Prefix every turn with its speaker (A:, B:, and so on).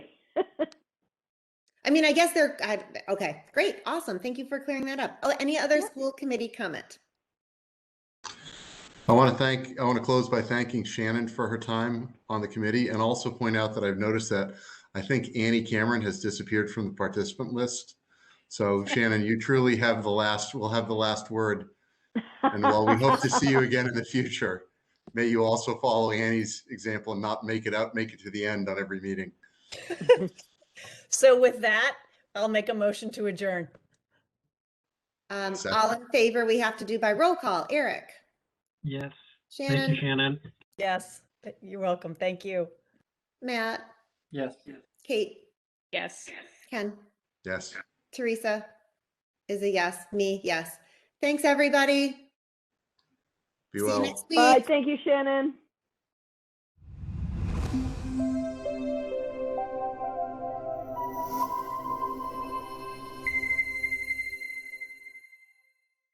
A: mean, I guess they're, I, okay, great, awesome. Thank you for clearing that up. Oh, any other school committee comment?
B: I want to thank, I want to close by thanking Shannon for her time on the committee and also point out that I've noticed that I think Annie Cameron has disappeared from the participant list. So Shannon, you truly have the last, will have the last word. And while we hope to see you again in the future, may you also follow Annie's example and not make it out, make it to the end on every meeting.
C: So with that, I'll make a motion to adjourn.
A: Um,
B: Second.
A: all in favor, we have to do by roll call. Eric,
D: Yes. Thank you,
A: Shannon,
D: Shannon.
C: Yes, you're welcome. Thank you.
A: Matt,
D: Yes.
A: Kate,
E: Yes.
A: Ken,
B: Yes.
A: Teresa is a yes, me, yes. Thanks, everybody.
B: Be
A: See you
B: well.
A: next week.
F: Bye. Thank you, Shannon.